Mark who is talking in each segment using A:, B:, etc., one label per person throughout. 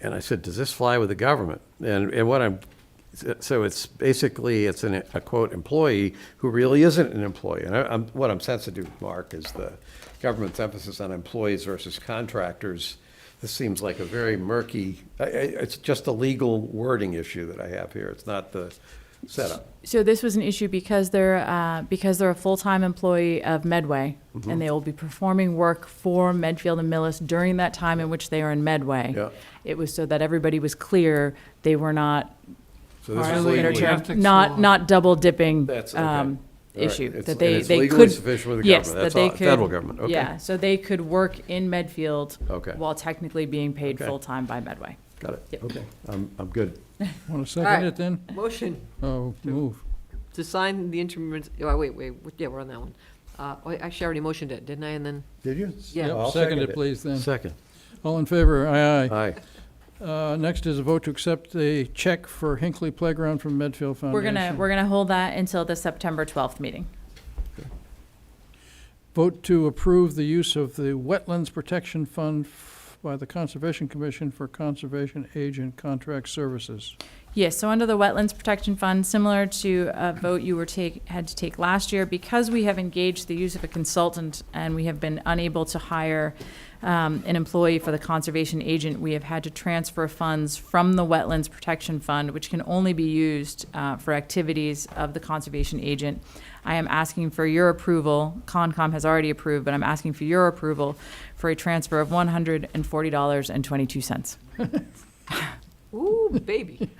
A: And I said, does this fly with the government? And, and what I'm, so it's basically, it's an, a quote, employee who really isn't an employee. And I, I'm, what I'm sensitive, Mark, is the government's emphasis on employees versus contractors. This seems like a very murky, I, I, it's just a legal wording issue that I have here. It's not the setup.
B: So this was an issue because they're, uh, because they're a full-time employee of Medway,
A: Mm-hmm.
B: and they will be performing work for Medfield and Millis during that time in which they are in Medway.
A: Yeah.
B: It was so that everybody was clear, they were not,
A: So
B: or
A: this is
B: a
A: legally-
B: later
C: legal.
B: term,
C: Ethics law.
B: not, not double dipping,
A: That's okay.
B: um,
A: All right.
B: issue,
A: It's-
B: that
A: and
B: they,
A: it's
B: they
A: legally
B: could.
A: sufficient with the
B: yes,
A: government. That's
B: that they
A: all. Federal
B: could-
A: government. Okay.
B: Yeah, so they could work in Medfield.
A: Okay.
B: While technically being paid
A: Okay.
B: full-time by Medway.
A: Got it.
B: Yep.
A: Okay. I'm, I'm good.
C: Want to
D: All right.
C: second it then?
D: Motion
C: Oh, move.
D: to sign the interim, oh, wait, wait, yeah, we're on that one. Uh, wait, Actually, I already motioned it, didn't I? And then,
A: Did you?
D: Yeah.
A: I'll
C: Yep,
A: second
C: second it,
A: it.
C: please, then.
A: Second.
C: All in favor, aye aye.
A: Aye.
C: Uh, Next is a vote to accept a check for Hinckley Playground from Medfield
B: We're
C: Foundation.
B: gonna, we're gonna hold that until the September twelfth meeting.
C: Vote to approve the use of the Wetlands Protection Fund f- by the Conservation Commission for Conservation Agent Contract Services.
B: Yes, so under the Wetlands Protection Fund, similar to a vote you were take, had to take last year, because we have engaged the use of a consultant and we have been unable to hire um, an employee for the conservation agent, we have had to transfer funds from the Wetlands Protection Fund, which can only be used uh, for activities of the conservation agent. I am asking for your approval, Concom has already approved, but I'm asking for your approval for a transfer of one hundred and forty dollars and twenty-two cents.
D: ooh, baby.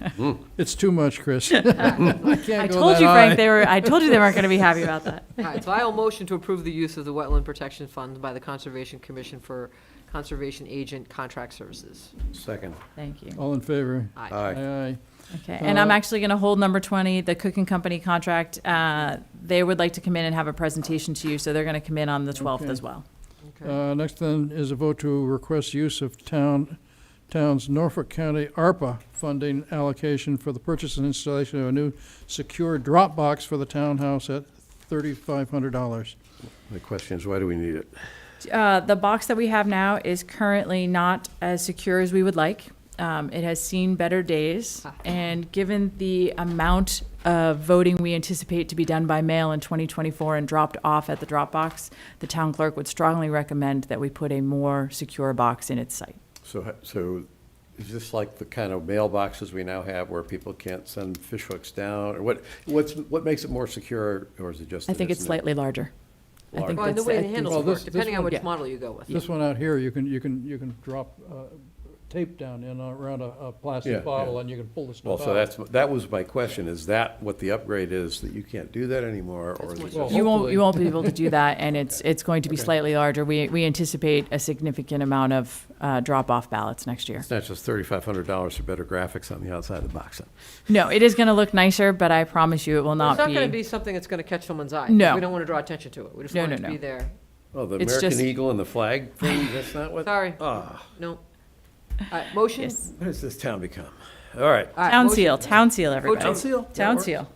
C: It's too much, Chris. I
B: I
C: can't go
B: told
C: that
B: you, Frank,
C: high.
B: they were, I told you they weren't gonna be happy about that.
D: All right, so I'll motion to approve the use of the Wetland Protection Fund by the Conservation Commission for Conservation Agent Contract Services.
A: Second.
B: Thank you.
C: All in favor?
D: Aye.
A: Aye.
C: Aye.
B: Okay, and I'm
C: Uh,
B: actually going to hold number 20, the cooking company contract. Uh, They would like to come in and have a presentation to you, so they're going to come in on the 12th
C: Okay.
B: as well.
D: Okay.
C: Uh, Next then is a vote to request use of town, town's Norfolk County ARPA funding allocation for the purchase and installation of a new secure drop box for the townhouse at thirty-five hundred dollars.
A: The question is, why do we need it?
B: Uh, The box that we have now is currently not as secure as we would like. Um, It has seen better days,
D: Ah.
B: and given the amount of voting we anticipate to be done by mail in 2024 and dropped off at the drop box, the town clerk would strongly recommend that we put a more secure box in its site.
A: So, so is this like the kind of mailboxes we now have where people can't send fishhooks down? Or what, what's, what makes it more secure, or is it just?
B: I
A: that
B: think it's
A: not-
B: slightly larger. I
A: Larger.
B: think
D: Well, and the
B: that's-
D: way
B: I
D: the
B: think
D: handles
C: Well,
D: work,
C: this- this
D: depending on
C: one-
D: which
B: Yeah.
D: model you go with.
C: This one out here, you can, you can, you can drop uh, tape down in uh, around a, a
A: Yeah, yeah.
C: plastic bottle and you can pull the
A: Well,
C: stuff
A: so
C: out.
A: that's, that was my question. Is that what the upgrade is, that you can't do that anymore? Or is it
D: That's
A: just?
C: what-
B: You won't,
C: Hopefully.
B: you won't be able to do that, and it's, it's going to be slightly larger. We, we anticipate a significant amount of uh, drop-off ballots next year.
A: It's not just thirty-five hundred dollars for better graphics on the outside of the box.
B: No, it is going to look nicer, but I promise you, it will
D: Well,
B: not
D: It's not going to
B: be.
D: be something that's going to catch someone's eye.
B: No.
D: We don't want to draw attention to it. We just
B: No,
D: want it
B: no,
D: to be
B: no.
D: there.
A: Oh, the
B: It's
A: American
B: just-
A: Eagle and the flag thing, that's not what?
D: Sorry,
A: Ah,
D: no. All right, motion?
B: Yes.
A: what has this town become? All right.
D: All right,
B: Town
D: motion.
B: seal, Oh, town seal,
D: Town
B: everybody.
A: seal? That
B: Town
A: works.
B: seal.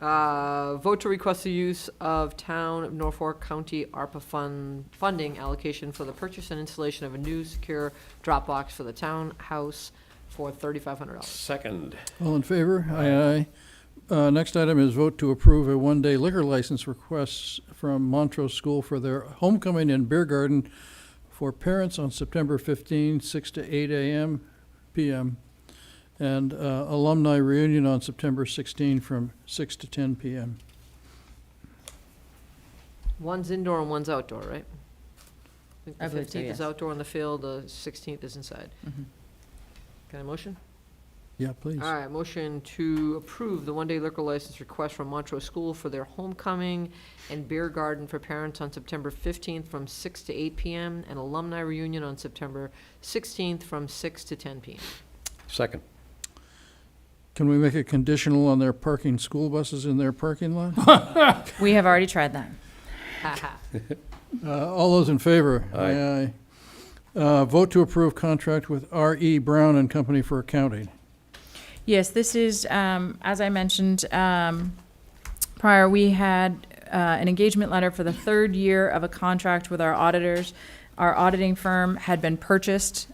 D: Uh, Vote to request the use of Town of Norfolk County ARPA fund, funding allocation for the purchase and installation of a new secure drop box for the townhouse for thirty-five hundred dollars.
A: Second,
C: All in favor? Aye, aye. Uh, next item is vote to approve a one-day liquor license request from Montrose School for their homecoming and beer garden for parents on September 15, 6 to 8 a.m., p.m., and uh, alumni reunion on September 16 from 6 to 10 p.m.
D: One's indoor and one's outdoor, right? think
B: I believe
D: The
B: so,
D: fifteenth is
B: yes.
D: outdoor on the field, the sixteenth is inside.
B: Mm-hmm.
D: Can I motion?
C: Yeah, please.
D: All right, motion to approve the one-day liquor license request from Montrose School for their homecoming and beer garden for parents on September fifteenth from six to eight PM, and alumni reunion on September sixteenth from six to ten PM.
A: second.
C: Can we make it conditional on their parking school buses in their parking lot?
B: We have already tried that.
D: Ha ha.
C: Uh, All those in favor?
A: Aye.
C: Aye. Uh, Vote to approve contract with R.E. Brown and Company for accounting.
B: Yes, this is, um, as I mentioned, um, prior, we had, uh, an engagement letter for the third year of a contract with our auditors. Our auditing firm had been purchased,